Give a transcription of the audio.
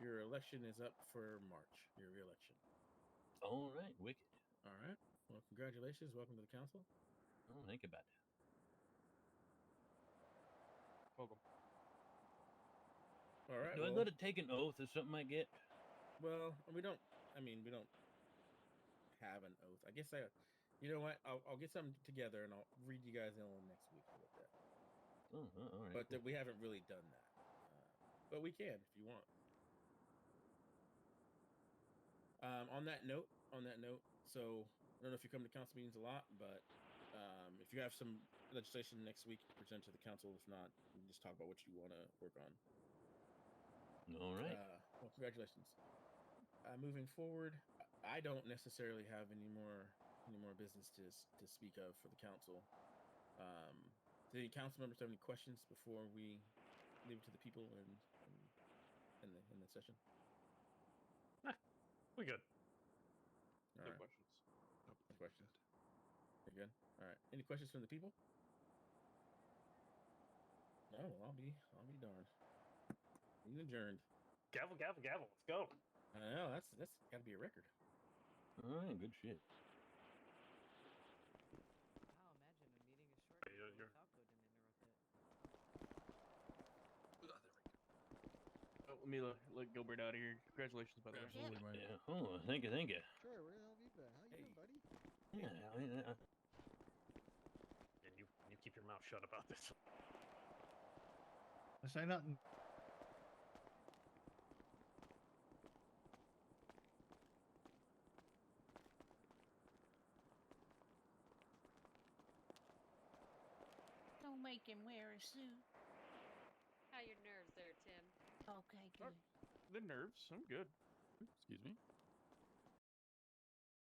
Your election is up for March. Your reelection. All right, wicked. All right. Well, congratulations. Welcome to the council. Don't think about it. Welcome. All right. Do I well, got to take an oath or something I get? well, we don't. I mean, we don't have an oath. I guess I. You know what? I'll, I'll get something together and I'll read you guys in next week about that. Oh, uh, all right. But that we haven't really done that. Uh, but we can if you want. Um, on that note, on that note, so I don't know if you come to council meetings a lot, but um, if you have some legislation next week, present to the council. If not, we can just talk about what you want to work on. all right. Uh, well, congratulations. Uh, moving forward, I- I don't necessarily have any more any more business to s- to speak of for the council. Um, do any council members have any questions before we leave it to the people and and in the in the session? We good. All no right, questions. No questions. you good. All right. Any questions from the people? No. Well, I'll be I'll be darned. Being adjourned. Gavel, gavel, gavel. Let's go. I know that's that's got to be a record. uh, all right. Good shit. Wow, imagine a meeting is short. Yeah, because you're- Falco didn't interrupt it. Oh, let me let, let Gilbert out of here. Congratulations, by the way. Absolutely, mate. Yeah. Oh, thank you, thank you. Trey, where the hell have you been? How you Hey. doing, buddy? Yeah. I- I- I- And you you keep your mouth shut about this. I say nothing. Don't make him wear a suit. How your nerves there, Tim? Okay, Sure. good. The Uh, nerves. I'm good. Excuse me.